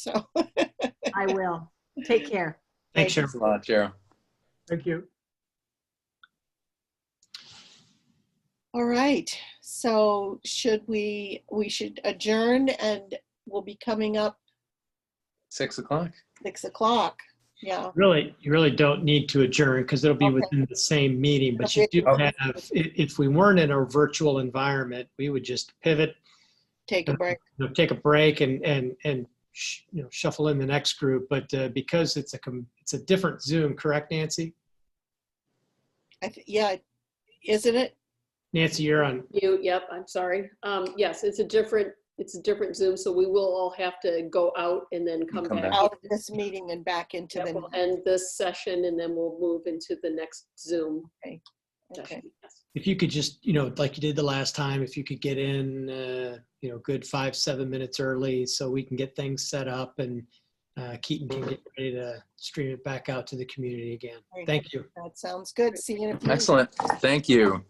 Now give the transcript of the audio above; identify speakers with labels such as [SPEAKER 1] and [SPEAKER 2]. [SPEAKER 1] So,
[SPEAKER 2] I will. Take care.
[SPEAKER 3] Thanks, Cheryl.
[SPEAKER 4] Thanks a lot, Cheryl.
[SPEAKER 3] Thank you.
[SPEAKER 1] all right. So should we, we should adjourn and we'll be coming up
[SPEAKER 4] Six o'clock.
[SPEAKER 1] six o'clock. Yeah.
[SPEAKER 3] Really, you really don't need to adjourn because it'll be
[SPEAKER 1] Okay.
[SPEAKER 3] within the same meeting, but you do
[SPEAKER 4] Okay.
[SPEAKER 3] have, i- if we weren't in a virtual environment, we would just pivot,
[SPEAKER 1] Take a break.
[SPEAKER 3] you know, take a break and, and, and, sh- you know, shuffle in the next group. But uh, because it's a, com- it's a different Zoom, correct, Nancy?
[SPEAKER 1] I, th- yeah, isn't it?
[SPEAKER 3] Nancy, you're on,
[SPEAKER 5] Mute, yep, I'm sorry. Um, yes, it's a different, it's a different Zoom, so we will all have to go out and then come
[SPEAKER 4] Come
[SPEAKER 5] back.
[SPEAKER 4] back.
[SPEAKER 1] Out of this meeting and back into
[SPEAKER 5] Yeah,
[SPEAKER 1] the,
[SPEAKER 5] We'll end this session and then we'll move into the next Zoom
[SPEAKER 1] okay.
[SPEAKER 5] session. Yes.
[SPEAKER 3] if you could just, you know, like you did the last time, if you could get in, uh, you know, good five, seven minutes early so we can get things set up and uh, Keaton can get ready to stream it back out to the community again.
[SPEAKER 1] Great.
[SPEAKER 3] Thank you.
[SPEAKER 1] That sounds good. See you in a few.
[SPEAKER 4] Excellent. Thank you.